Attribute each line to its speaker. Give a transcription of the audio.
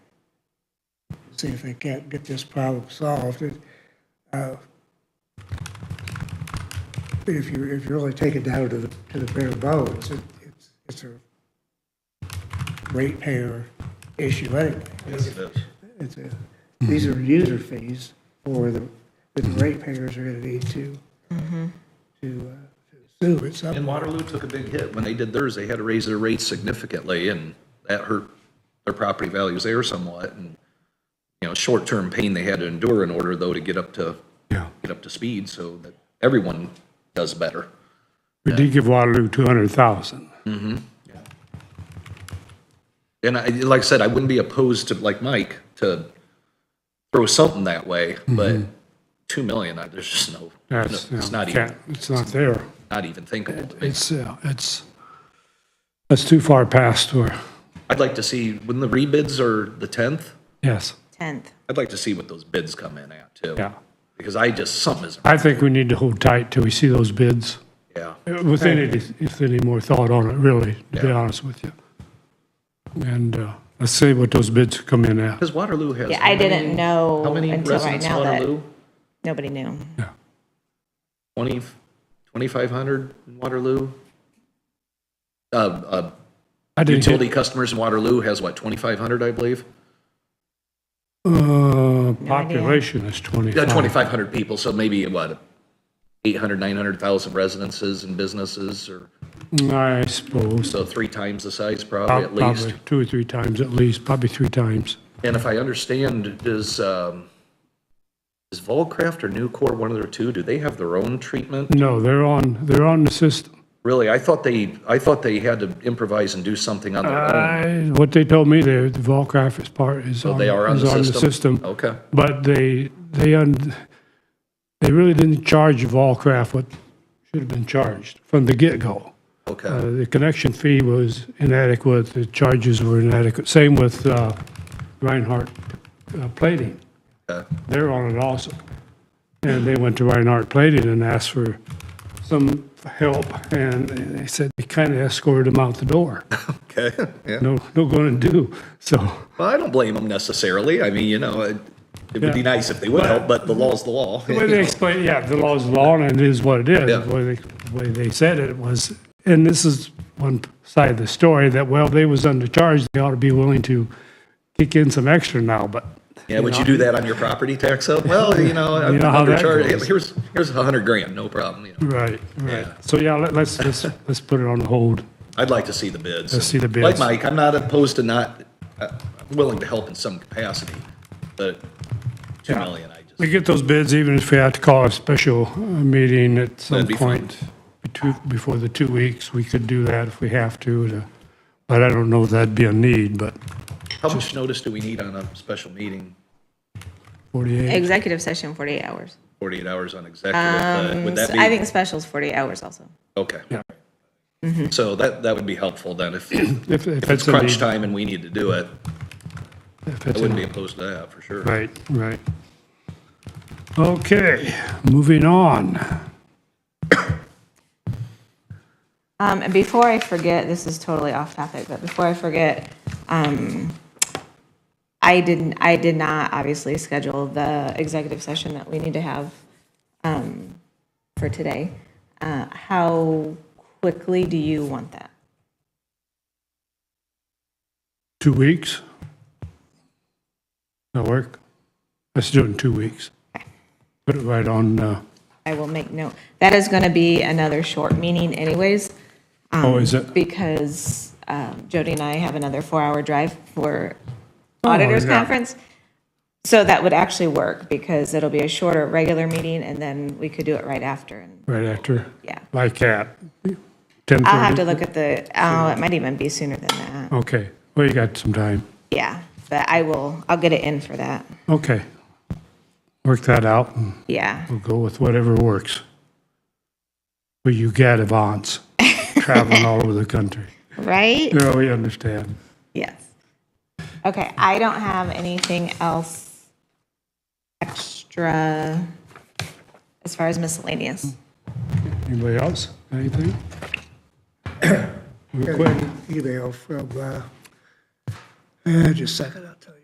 Speaker 1: see if they can't get this problem solved. It, uh, If you, if you really take it down to the, to the bare bones, it- it's, it's a ratepayer issue anyway.
Speaker 2: Yes, it is.
Speaker 1: It's a, these are user fees for the, that the ratepayers are gonna need to, to uh, to sue at some
Speaker 2: And Waterloo took a big hit. When they did theirs, they had to raise their rates significantly, and that hurt their property values there somewhat. And, you know, short-term pain they had to endure in order, though, to get up to,
Speaker 3: Yeah.
Speaker 2: get up to speed so that everyone does better.
Speaker 3: We did give Waterloo 200,000.
Speaker 2: And I, like I said, I wouldn't be opposed to, like Mike, to throw something that way, but 2 million, I- there's just no, no,
Speaker 3: Mm-hmm. That's, you
Speaker 2: it's
Speaker 3: know,
Speaker 2: not even,
Speaker 3: can't, it's not there.
Speaker 2: not even thinkable.
Speaker 3: It's, uh, it's, that's too far past where,
Speaker 2: I'd like to see, when the rebids are the 10th,
Speaker 3: yes,
Speaker 4: 10th.
Speaker 2: I'd like to see what those bids come in at, too.
Speaker 3: yeah.
Speaker 2: Because I just, something is,
Speaker 3: I think we need to hold tight till we see those bids,
Speaker 2: yeah.
Speaker 3: uh, with any, if any more thought on it, really, to be
Speaker 2: Yeah.
Speaker 3: honest with you. And uh, let's see what those bids come in at.
Speaker 2: Because Waterloo has.
Speaker 4: Yeah,
Speaker 2: how
Speaker 4: I
Speaker 2: many-
Speaker 4: didn't know
Speaker 2: How many
Speaker 4: until right
Speaker 2: residents in
Speaker 4: now that
Speaker 2: Waterloo?
Speaker 4: nobody knew.
Speaker 3: Yeah.
Speaker 2: 20, 2,500 in Waterloo? Uh, uh,
Speaker 3: I didn't
Speaker 2: Utility
Speaker 3: get,
Speaker 2: customers in Waterloo has what, 2,500, I believe?
Speaker 3: uh, population is
Speaker 2: Yeah,
Speaker 3: 25.
Speaker 2: 2,500 people, so maybe what, 800, 900,000 residences and businesses, or,
Speaker 3: I suppose,
Speaker 2: so three times the size probably at least.
Speaker 3: probably two or three times at least, probably three times.
Speaker 2: And if I understand, does, um, is Volcraft or Nucor, one of their two, do they have their own treatment?
Speaker 3: No, they're on, they're on the system.
Speaker 2: Really, I thought they, I thought they had to improvise and do something on their own.
Speaker 3: I- Uh, What they told me, the the Volcraft is part, is
Speaker 2: So
Speaker 3: on,
Speaker 2: they are on
Speaker 3: is
Speaker 2: the
Speaker 3: on the
Speaker 2: system?
Speaker 3: system.
Speaker 2: Okay,
Speaker 3: But they, they, un- they really didn't charge Volcraft what should have been charged from the get-go. Uh,
Speaker 2: okay.
Speaker 3: The connection fee was inadequate, the charges were inadequate. Same with uh, Reinhardt uh, Plating.
Speaker 2: okay.
Speaker 3: They're on it also. And they went to Reinhardt Plating and asked for some help, and they said they kind of escorted them out the door.
Speaker 2: Okay, yeah.
Speaker 3: no, no going to do. So,
Speaker 2: Well, I don't blame them necessarily. I mean, you know, it, it would be
Speaker 3: Yeah.
Speaker 2: nice if they would help, but the law's the law.
Speaker 3: the way they explain, yeah, the law is the law and it is what it is.
Speaker 2: Yeah.
Speaker 3: The way they, the way they said it was, and this is one side of the story, that, well, they was undercharged, they ought to be willing to kick in some extra now, but
Speaker 2: Yeah, would you do that on your property tax up? Well, you know, I'm
Speaker 3: You know how that
Speaker 2: undercharged.
Speaker 3: goes.
Speaker 2: Here's, here's a hundred grand, no problem, you know.
Speaker 3: Right, right.
Speaker 2: Yeah.
Speaker 3: So yeah, let- let's, let's, let's put it on hold.
Speaker 2: I'd like to see the bids.
Speaker 3: Let's see the
Speaker 2: Like
Speaker 3: bids.
Speaker 2: Mike, I'm not opposed to not, uh, I'm willing to help in some capacity, but two million, I just.
Speaker 3: We get those bids, even if we have to call a special uh, meeting at some
Speaker 2: That'd be fine.
Speaker 3: point betw- before the two weeks, we could do that if we have to, to- but I don't know if that'd be a need, but
Speaker 2: How much notice do we need on a special meeting?
Speaker 3: 48,
Speaker 4: Executive session, 48 hours.
Speaker 2: Forty-eight hours on executive, but Uh, would that
Speaker 4: Um, So I
Speaker 2: be,
Speaker 4: think special's 48 hours also.
Speaker 2: okay.
Speaker 3: Yeah.
Speaker 4: Mm-hmm.
Speaker 2: So that, that would be helpful then, if, if
Speaker 3: if if
Speaker 2: it's
Speaker 3: it's a
Speaker 2: crunch
Speaker 3: need.
Speaker 2: time and we need to do it,
Speaker 3: if
Speaker 2: I
Speaker 3: it's a
Speaker 2: wouldn't be
Speaker 3: need.
Speaker 2: opposed to that, for sure.
Speaker 3: Right, right. Okay, moving on.
Speaker 4: Um, and before I forget, this is totally off topic, but before I forget, um, I didn't, I did not obviously schedule the executive session that we need to have, um, for today. Uh, how quickly do you want that?
Speaker 3: Two weeks? That'll work. Let's do it in two weeks. Put it right on, uh,
Speaker 4: I will make note. That is going to be another short meeting anyways.
Speaker 3: oh, is it?
Speaker 4: because um, Jody and I have another four-hour drive for auditors
Speaker 3: yeah.
Speaker 4: conference. So that would actually work because it'll be a shorter regular meeting and then we could do it right after. And
Speaker 3: Right after?
Speaker 4: Yeah.
Speaker 3: Like at 10:30?
Speaker 4: I'll have to look at the, oh, it might even be sooner than that.
Speaker 3: Okay, well, you got some time.
Speaker 4: Yeah, but I will, I'll get it in for that.
Speaker 3: Okay. Work that out and
Speaker 4: Yeah.
Speaker 3: we'll go with whatever works. Well, you got Avance traveling all over the country.
Speaker 4: Right?
Speaker 3: No, we understand.
Speaker 4: Yes. Okay, I don't have anything else extra as far as miscellaneous.
Speaker 3: Anybody else? Anything? Real
Speaker 1: Got
Speaker 3: quick.
Speaker 1: an Email from, uh, uh, just a second, I'll tell you.